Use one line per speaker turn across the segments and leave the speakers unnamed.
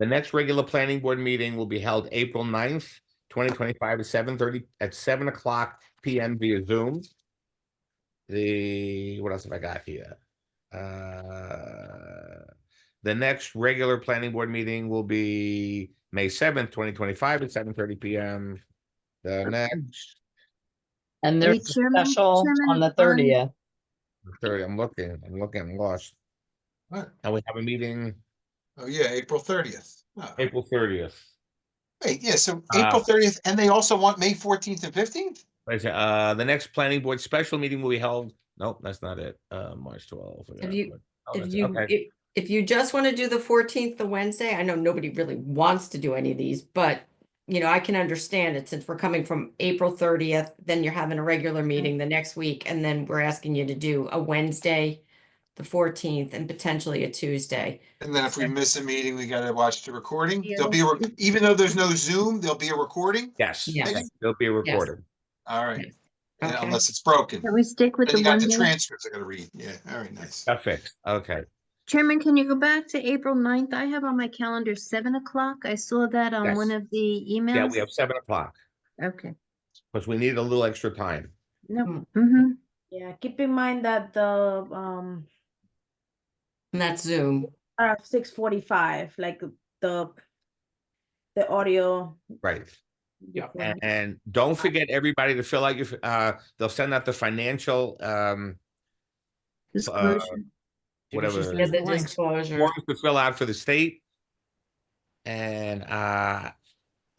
The next regular planning board meeting will be held April 9th, twenty twenty-five at seven thirty, at seven o'clock PM via Zoom. The, what else have I got here? Uh, The next regular planning board meeting will be May seventh, twenty twenty-five at seven thirty PM. The next,
And there's
Wait,
a
Chairman-
special
Chairman,
on the
um,
thirtieth.
sorry, I'm looking, I'm looking, I'm lost.
What?
And we have a meeting
Oh, yeah, April thirtieth.
April thirtieth.
Wait, yeah, so
Ah.
April thirtieth, and they also want May fourteenth and fifteenth?
Uh, the next planning board special meeting will be held, nope, that's not it, uh, March twelfth. Oh,
If you- If you, if, if you just want to do the fourteenth, the Wednesday, I know nobody really wants to do any of these, but you know, I can understand it since we're coming from April thirtieth, then you're having a regular meeting the next week, and then we're asking you to do a Wednesday, the fourteenth, and potentially a Tuesday.
And then if we miss a meeting, we gotta watch the recording.
Yeah.
There'll be, a rec- even though there's no Zoom, there'll be a recording.
Yes,
Yes.
yes, it'll be recorded.
All right, yeah,
Okay,
unless it's broken.
Can we stick with
Then
the
you got
one?
the
day?
transcripts I gotta read. Yeah, all right, nice.
Perfect, okay.
Chairman, can you go back to April 9th? I have on my calendar seven o'clock. I saw that on one
Yes.
of the emails.
Yeah, we have seven o'clock,
Okay,
because we need a little extra time.
no, mm-hmm,
Yeah, keep in mind that the um
and that's Zoom.
are six forty five, like the the audio.
Right,
Yeah.
and, and don't forget everybody to fill out your, f- uh, they'll send out the financial, um,
Uh,
disclosure.
whatever.
Yeah, the
forms
disclosure.
to fill out for the state. And, uh,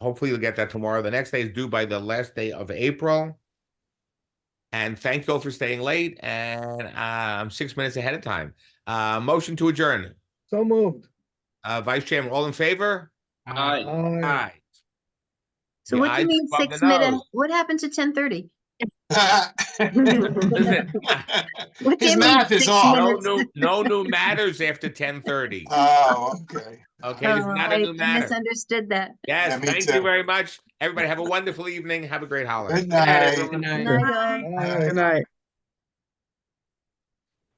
hopefully you'll get that tomorrow. The next day is due by the last day of April. And thank you all for staying late, and, uh, I'm six minutes ahead of time. Uh, motion to adjourn.
So moved.
Uh, Vice Chairman, all in favor?
Aye.
Aye.
Aye.
So
The
what do
ayes
you mean
above the
six minutes?
nose.
What happened to ten thirty?
Listen,
What do
His
you mean
math is
six
off.
No
minutes? Oh,
new, no new matters after ten thirty.
Oh, okay.
Okay,
Oh,
this is not
I
a new matter.
misunderstood that.
Yes,
Yeah, me
thank you
too.
very much. Everybody have a wonderful evening. Have a great holiday.
Good night.
Good night.
Night, all.
Aye. Good night.